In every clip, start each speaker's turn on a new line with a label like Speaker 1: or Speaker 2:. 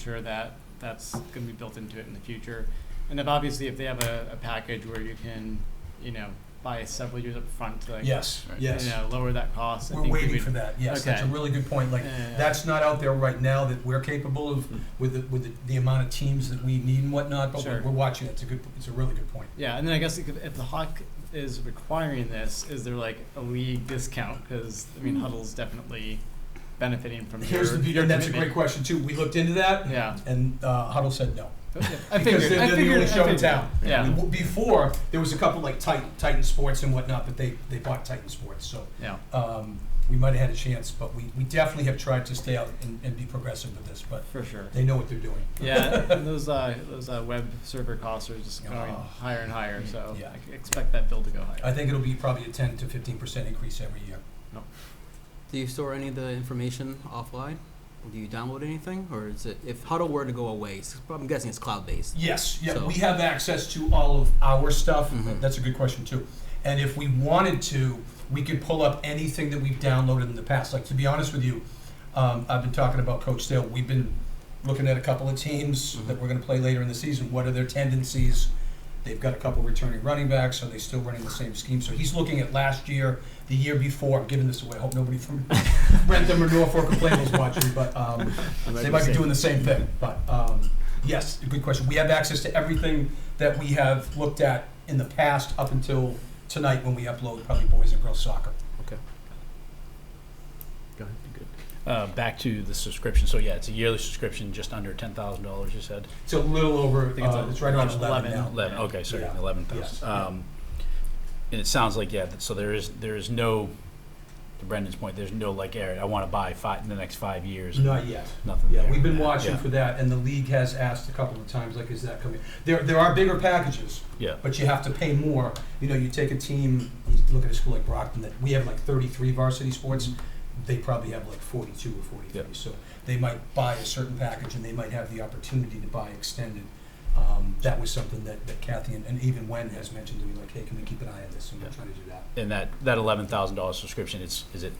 Speaker 1: sure that that's going to be built into it in the future. And if obviously if they have a, a package where you can, you know, buy several years up front to like,
Speaker 2: Yes,
Speaker 3: Right.
Speaker 1: you
Speaker 2: yes.
Speaker 1: know, lower that cost. I
Speaker 2: We're
Speaker 1: think we
Speaker 2: waiting
Speaker 1: would-
Speaker 2: for that, yes, that's a
Speaker 1: Okay.
Speaker 2: really good point, like,
Speaker 1: Yeah. Hmm.
Speaker 2: that's not out there right now that we're capable of with the, with the, the amount of teams that we need and whatnot, but we're,
Speaker 1: Sure.
Speaker 2: we're watching, it's a good, it's a really good point.
Speaker 1: Yeah, and then I guess if if the Hawk is requiring this, is there like a league discount? Because I mean, Huddle's definitely benefiting from
Speaker 2: Hmm. Here's
Speaker 1: your,
Speaker 2: the beauty,
Speaker 1: your
Speaker 2: and that's a great
Speaker 1: commitment.
Speaker 2: question too, we looked into that,
Speaker 1: Yeah,
Speaker 2: and, uh, Huddle said no.
Speaker 1: I figured.
Speaker 2: Because they're,
Speaker 1: I
Speaker 2: they're the
Speaker 1: figured-
Speaker 2: only
Speaker 1: I
Speaker 2: show in
Speaker 1: figured.
Speaker 2: town.
Speaker 1: Yeah,
Speaker 2: W- Before, there was a couple like Titan, Titan Sports and whatnot, but they, they bought Titan Sports, so,
Speaker 1: yeah.
Speaker 2: um, we might have had a chance, but we, we definitely have tried to stay out and, and be progressive with this, but
Speaker 1: For sure.
Speaker 2: they know what they're doing.
Speaker 1: Yeah, and those uh, those uh, web server costs are just going
Speaker 2: Oh.
Speaker 1: higher and higher, so
Speaker 2: Yeah.
Speaker 1: I c- expect that bill to go higher.
Speaker 2: I think it'll be probably a ten to fifteen percent increase every year.
Speaker 4: Do you store any of the information offline? Do you download anything, or is it if Huddle were to go away? s- I'm guessing it's cloud based.
Speaker 2: Yes, yeah,
Speaker 4: So-
Speaker 2: we have access to all of our stuff.
Speaker 4: Mhm.
Speaker 2: That's a good question too. And if we wanted to, we could pull up anything that we've downloaded in the past. Like to be honest with you, um, I've been talking about Coach Dale. We've been looking at a couple of teams that we're going to play later in the season. What are their tendencies? They've got a couple returning running backs. Are they still running the same scheme? So he's looking at last year, the year before. I'm giving this away. I hope nobody from Rentham or Norfolk or Plainville's watching, but um, they might be doing the same thing. But um, yes, a good question. We have access to everything that we have looked at in the past up until tonight when we upload probably boys and girls soccer.
Speaker 3: Go ahead, be good. Uh, back to the subscription, so yeah, it's a yearly subscription, just under ten thousand dollars, you said?
Speaker 2: It's a little over.
Speaker 1: think it's
Speaker 2: uh,
Speaker 1: a-
Speaker 2: it's right around
Speaker 1: it's 11.
Speaker 2: eleven now.
Speaker 3: Eleven, okay, sorry,
Speaker 2: Yeah.
Speaker 3: eleven
Speaker 2: Yes.
Speaker 3: thousand. Um, and it sounds like, yeah, that- so there is, there is no, to Brendan's point, there's no like, Eric, I wanna buy five, in the next five years,
Speaker 2: Not yet.
Speaker 3: nothing
Speaker 2: Yeah,
Speaker 3: there.
Speaker 2: we've been watching
Speaker 3: Yeah.
Speaker 2: for that, and the league has asked a couple of times, like, is that coming? There, there are bigger packages,
Speaker 3: Yeah,
Speaker 2: but you have to pay more. You know, you take a team, you look at a school like Brockton, that we have like thirty-three varsity sports, they probably have like forty-two or
Speaker 3: Mm-hmm. Yeah.
Speaker 2: forty-three. So they might buy a certain package, and they might have the opportunity to buy extended. Um, that was something that, that Kathy and, and even Wen has mentioned to me, like, hey, can we keep an eye on this? And we're
Speaker 3: Yeah.
Speaker 2: trying to do that.
Speaker 3: and that, that eleven thousand dollar subscription, it's, is it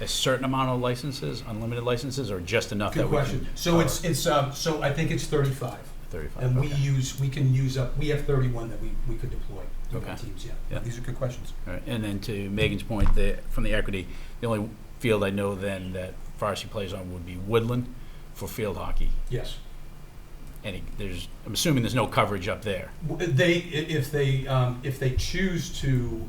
Speaker 3: a certain amount of licenses, unlimited licenses, or just enough that
Speaker 2: Good
Speaker 3: we can?
Speaker 2: question. So it's, it's, um, so I think it's thirty-five.
Speaker 3: Thirty-five,
Speaker 2: And we
Speaker 3: okay.
Speaker 2: use, we can use up, we have thirty-one that we, we could deploy to our
Speaker 3: Okay.
Speaker 2: teams, yeah.
Speaker 3: Yeah.
Speaker 2: These are good questions.
Speaker 3: All right, and then to Megan's point, the, from the equity, the only field I know then that varsity plays on would be Woodland for field hockey.
Speaker 2: Yes.
Speaker 3: Any, there's, I'm assuming there's no coverage up there.
Speaker 2: W- They, i- if they, um, if they choose to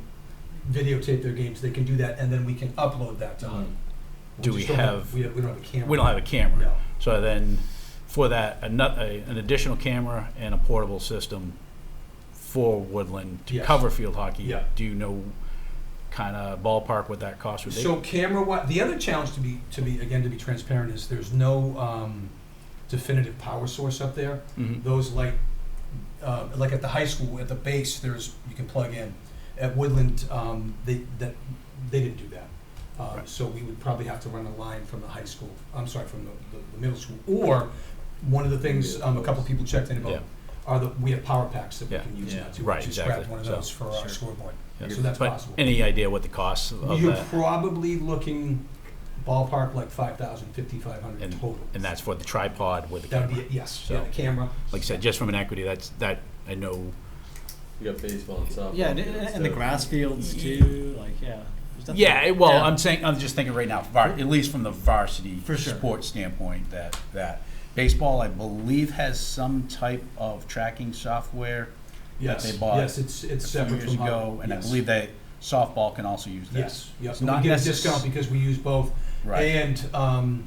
Speaker 2: videotape their games, they can do that, and then we can upload that to Huddle.
Speaker 3: Mm. Do we
Speaker 2: just don't
Speaker 3: have-
Speaker 2: We have, we don't have a camera.
Speaker 3: We don't have a camera.
Speaker 2: No.
Speaker 3: So then, for that, ano- a- an additional camera and a portable system for Woodland to
Speaker 2: Yes.
Speaker 3: cover field hockey.
Speaker 2: Yeah.
Speaker 3: Do you know kind of ballpark what that cost would be?
Speaker 2: So camera, wa- the other challenge to be, to be, again, to be transparent is there's no, um, definitive power source up there.
Speaker 3: Mhm.
Speaker 2: those like, uh, like at the high school, at the base, there's, you can plug in. At Woodland, um, they, that, they didn't do that. Uh,
Speaker 3: Right.
Speaker 2: so we would probably have to run a line from the high school, I'm sorry, from the, the, the middle school. Or, one of the things, um, a couple people checked in
Speaker 3: Yeah.
Speaker 2: about, are the, we have power packs that we
Speaker 3: Yeah.
Speaker 2: can use now
Speaker 1: Yeah.
Speaker 2: too.
Speaker 3: Right,
Speaker 2: Just grab
Speaker 3: exactly.
Speaker 2: one of
Speaker 3: So-
Speaker 2: those for our
Speaker 1: Sure.
Speaker 2: scoreboard.
Speaker 3: Yeah.
Speaker 2: So that's
Speaker 3: But
Speaker 2: possible.
Speaker 3: Any idea what the cost of
Speaker 2: You're
Speaker 3: that?
Speaker 2: probably looking ballpark like five thousand, fifty-five hundred
Speaker 3: And-
Speaker 2: total.
Speaker 3: And that's for the tripod with the
Speaker 2: That would
Speaker 3: camera?
Speaker 2: be, it, yes, yeah,
Speaker 3: So-
Speaker 2: the camera.
Speaker 3: Like I said, just from an equity, that's, that, I know
Speaker 5: You got baseball and softball.
Speaker 1: Yeah, and,
Speaker 5: fields,
Speaker 1: and the
Speaker 5: so-
Speaker 1: grass fields too. Like, yeah. There's definitely-
Speaker 3: Yeah, it- well,
Speaker 1: Yeah.
Speaker 3: I'm saying, I'm just thinking right now, var, at least from the varsity
Speaker 1: For sure.
Speaker 3: sports standpoint, that, that. Baseball, I believe, has some type of tracking software that
Speaker 2: Yes,
Speaker 3: they bought
Speaker 2: Yes, it's, it's
Speaker 3: a few
Speaker 2: separate
Speaker 3: years
Speaker 2: from
Speaker 3: ago,
Speaker 2: Hubble.
Speaker 3: and I
Speaker 2: Yes.
Speaker 3: believe that softball can also use that.
Speaker 2: Yes, yes,
Speaker 3: It's
Speaker 2: and we
Speaker 3: not
Speaker 2: get a
Speaker 3: necess-
Speaker 2: discount because we use both.
Speaker 3: Right,
Speaker 2: And um,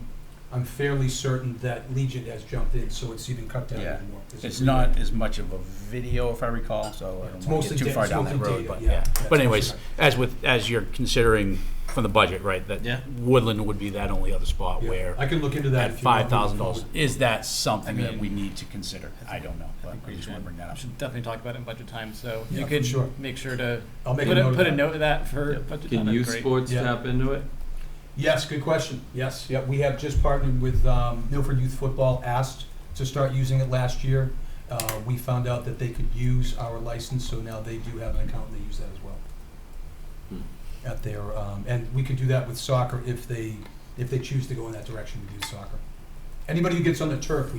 Speaker 2: I'm fairly certain that Legion has jumped in, so it's even cut down
Speaker 3: Yeah.
Speaker 2: even more. This
Speaker 3: it's
Speaker 2: is-
Speaker 3: not as much of a video, if I recall, so I
Speaker 2: It's
Speaker 3: don't wanna
Speaker 2: mostly
Speaker 3: get too
Speaker 2: da-
Speaker 3: far
Speaker 2: it's
Speaker 3: down that
Speaker 2: mostly
Speaker 3: road,
Speaker 2: data,
Speaker 3: but,
Speaker 2: yeah.
Speaker 3: yeah.
Speaker 2: That's
Speaker 3: But
Speaker 2: mostly
Speaker 3: anyways,
Speaker 2: right.
Speaker 3: as with, as you're considering from the budget, right,
Speaker 1: Yeah.
Speaker 3: that Woodland would be that only other spot
Speaker 2: Yeah,
Speaker 3: where
Speaker 2: I can look into that.
Speaker 3: at
Speaker 2: if you want
Speaker 3: five
Speaker 2: moving
Speaker 3: thousand dollars,
Speaker 2: forward.
Speaker 3: is that something
Speaker 1: I
Speaker 3: that
Speaker 1: mean,
Speaker 3: we need to consider?
Speaker 1: I
Speaker 3: I don't know, but
Speaker 1: think
Speaker 3: I
Speaker 1: we
Speaker 3: just wanna
Speaker 1: should.
Speaker 3: bring that
Speaker 1: I
Speaker 3: up.
Speaker 1: should definitely talk about it in budget time. So
Speaker 2: Yeah,
Speaker 1: you
Speaker 2: for
Speaker 1: could
Speaker 2: sure.
Speaker 1: make sure to
Speaker 2: I'll make a
Speaker 1: put
Speaker 2: note
Speaker 1: a,
Speaker 2: of
Speaker 1: put a
Speaker 2: that.
Speaker 1: note of that for
Speaker 5: Yep.
Speaker 1: budget time.
Speaker 5: Can
Speaker 1: That'd
Speaker 5: youth
Speaker 1: be great.
Speaker 5: sports
Speaker 2: Yeah.
Speaker 5: tap into it?
Speaker 2: Yes, good question. Yes, yeah, we have just partnered with um, Milford Youth Football, asked to start using it last year. Uh, We found out that they could use our license, so now they do have an account, and they use that as well.
Speaker 5: Hmm.
Speaker 2: At their, um, and we could do that with soccer if they, if they choose to go in that direction, we do soccer. anybody who gets on the turf, we